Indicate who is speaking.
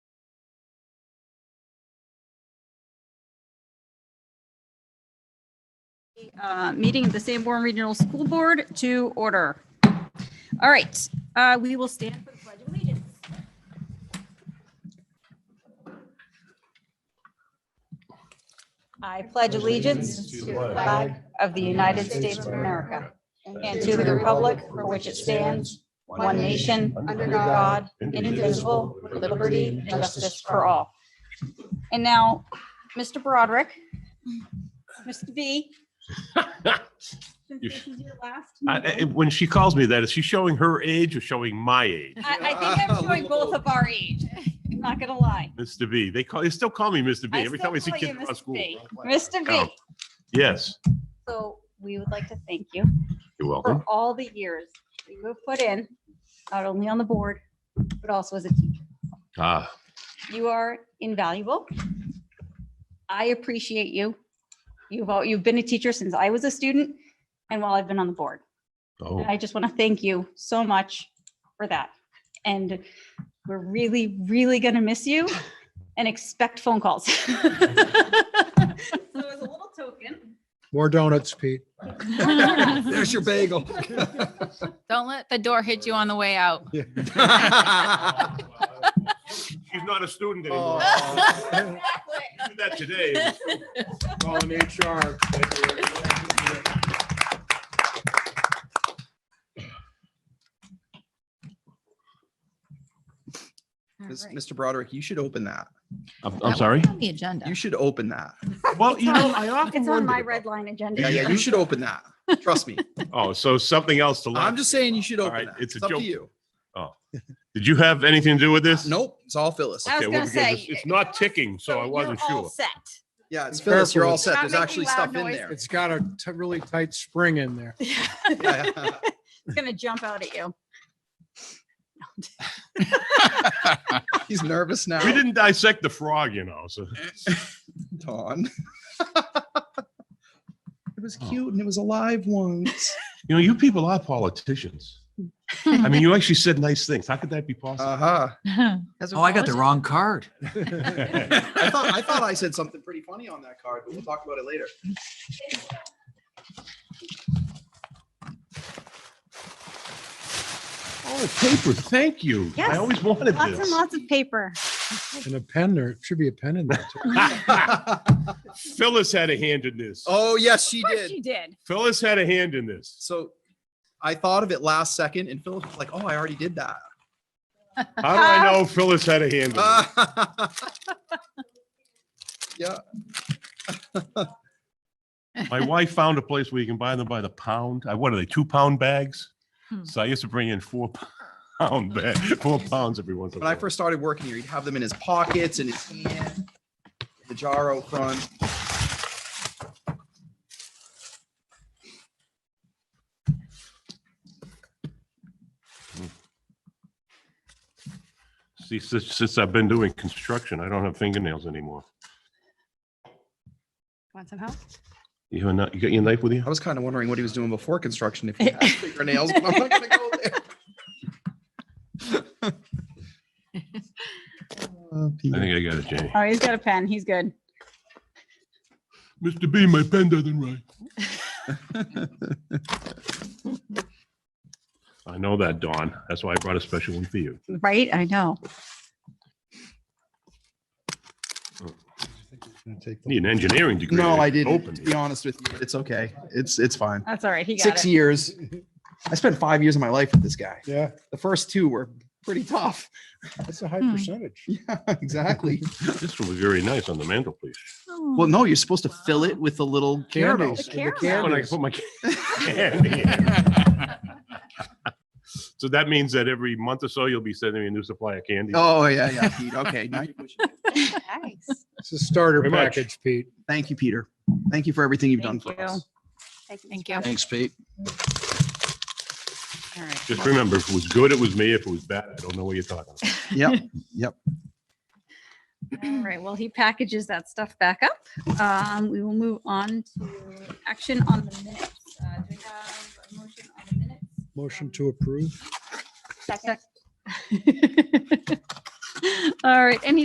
Speaker 1: uh, meeting of the Sanborn Regional School Board to order. All right, uh, we will stand for the pledge of allegiance.
Speaker 2: I pledge allegiance to the flag of the United States of America and to the republic for which it stands, one nation, under God, indivisible, with liberty and justice for all.
Speaker 1: And now, Mr. Broderick, Mr. B. Since this is your last
Speaker 3: I- I-
Speaker 1: meeting,
Speaker 3: When she calls me that, is she showing her age or showing my age?
Speaker 1: I, I think I'm showing both of our age. I'm not gonna lie.
Speaker 3: Mr. B, they call, they still call me Mr. B
Speaker 1: I
Speaker 3: every
Speaker 1: still
Speaker 3: time I see
Speaker 1: call
Speaker 3: kids
Speaker 1: you
Speaker 3: across
Speaker 1: Mr.
Speaker 3: school.
Speaker 1: B. Mr.
Speaker 3: Oh.
Speaker 1: B,
Speaker 3: Yes,
Speaker 1: so we would like to thank you
Speaker 3: you're
Speaker 1: for
Speaker 3: welcome.
Speaker 1: all the years that you've put in, not only on the board, but also as a teacher.
Speaker 3: Ah,
Speaker 1: You are invaluable. I appreciate you. You've, al- you've been a teacher since I was a student and while I've been on the board.
Speaker 3: oh,
Speaker 1: And I just want to thank you so much for that. And we're really, really going to miss you and expect phone calls. So as a little token.
Speaker 4: More donuts, Pete.
Speaker 5: There's your bagel.
Speaker 6: Don't let the door hit you on the way out.
Speaker 3: she's not a student
Speaker 5: Oh.
Speaker 3: anymore.
Speaker 4: Oh,
Speaker 3: I did That today.
Speaker 4: Calling HR.
Speaker 5: Mis- Mr. Broderick, you should open that.
Speaker 3: I'm, I'm sorry.
Speaker 6: On the agenda.
Speaker 5: You should open that.
Speaker 3: Well, you know, I often
Speaker 1: It's on my
Speaker 3: wonder.
Speaker 1: red line
Speaker 5: Yeah,
Speaker 1: agenda.
Speaker 5: yeah, you should open that. Trust me.
Speaker 3: Oh, so something else to
Speaker 5: I'm
Speaker 3: learn.
Speaker 5: just saying you should
Speaker 3: All
Speaker 5: open
Speaker 3: right,
Speaker 5: that.
Speaker 3: it's a
Speaker 5: It's up
Speaker 3: joke.
Speaker 5: to you.
Speaker 3: Did you have anything to do with this?
Speaker 5: Nope, it's all Phyllis.
Speaker 1: I was
Speaker 3: Okay, well,
Speaker 1: gonna
Speaker 3: because
Speaker 1: say,
Speaker 3: it's- It's not ticking, so I
Speaker 1: you're
Speaker 3: wasn't
Speaker 1: all
Speaker 3: sure.
Speaker 1: Set.
Speaker 5: Yeah, it's Phyllis. You're all set.
Speaker 6: Not
Speaker 5: There's
Speaker 6: making
Speaker 5: actually
Speaker 6: loud
Speaker 5: stuff in
Speaker 6: noises.
Speaker 5: there.
Speaker 4: It's got a t- really tight spring in there.
Speaker 5: Yeah.
Speaker 1: It's Gonna jump out at you.
Speaker 5: He's nervous now.
Speaker 3: We didn't dissect the frog, you know, so.
Speaker 5: Dawn. It was cute and it was alive once.
Speaker 3: You know, you people are politicians. I mean, you actually said nice things. How could that be possible?
Speaker 5: Uh-huh.
Speaker 7: Oh, I got the wrong card.
Speaker 3: Oh,
Speaker 5: I thought, I thought I said something pretty funny on that card, but we'll talk about it later.
Speaker 3: Oh, paper, thank you.
Speaker 1: Yes.
Speaker 3: I always wanted
Speaker 1: Lots and
Speaker 3: this.
Speaker 1: lots of paper.
Speaker 4: And a pen there, should be a pen in there. too.
Speaker 3: Phyllis had a hand in this.
Speaker 5: Oh, yes, she did.
Speaker 1: She did.
Speaker 3: Phyllis had a hand in this.
Speaker 5: So I thought of it last second and Phil was like, oh, I already did that.
Speaker 3: How do I know Phyllis had a hand in
Speaker 5: Uh.
Speaker 3: this?
Speaker 5: Yeah,
Speaker 3: My wife found a place where you can buy them by the pound. I, what are they, two pound bags?
Speaker 6: Hmm.
Speaker 3: So I used to bring in four pound bag, four pounds every once in a
Speaker 5: when I
Speaker 3: while.
Speaker 5: first started working here, he'd have them in his pockets and his hand, the jar out front.
Speaker 3: See, since, since I've been doing construction, I don't have fingernails anymore.
Speaker 1: Want some help?
Speaker 3: You have a kni- you got your knife with you?
Speaker 5: I was kind of wondering what he was doing before construction if he had fingernails, but I'm not gonna go there.
Speaker 3: I think I got it, Jenny.
Speaker 1: Oh, he's got a pen. He's good.
Speaker 3: Mr. B, my pen doesn't write. I know that, Dawn. That's why I brought a special one for you.
Speaker 1: Right? I know.
Speaker 3: Need an engineering degree.
Speaker 5: No,
Speaker 3: to
Speaker 5: I didn't,
Speaker 3: open
Speaker 5: to
Speaker 3: it.
Speaker 5: be honest with you. It's okay. It's, it's fine.
Speaker 1: That's all right. He got
Speaker 5: Six
Speaker 1: it.
Speaker 5: years. I spent five years of my life with this guy.
Speaker 4: Yeah,
Speaker 5: The first two were pretty tough.
Speaker 4: that's a high
Speaker 6: Hmm.
Speaker 4: percentage.
Speaker 5: Yeah, exactly.
Speaker 3: This will be very nice on the mantelpiece.
Speaker 5: Well, no, you're supposed to fill it with the little caramel.
Speaker 4: Candies,
Speaker 1: The
Speaker 4: the
Speaker 1: caramel.
Speaker 3: Oh, and I can
Speaker 4: candies.
Speaker 3: put my candy in. So that means that every month or so, you'll be sending me a new supply of candy.
Speaker 5: Oh, yeah, yeah, Pete. Okay. now you're pushing it.
Speaker 6: Nice.
Speaker 4: It's a starter
Speaker 3: Very much.
Speaker 4: package, Pete.
Speaker 5: Thank you, Peter. Thank you for everything you've done
Speaker 1: Thank
Speaker 5: for us.
Speaker 6: Thank you.
Speaker 5: Thanks, Pete.
Speaker 6: All right.
Speaker 3: Just remember, if it was good, it was me. If it was bad, I don't know what you're talking about.
Speaker 5: Yep.
Speaker 1: All right, well, he packages that stuff back up. Um, we will move on to action on the minutes. Uh, do we have a motion on the minutes?
Speaker 4: Motion to approve.
Speaker 1: Second. All right, any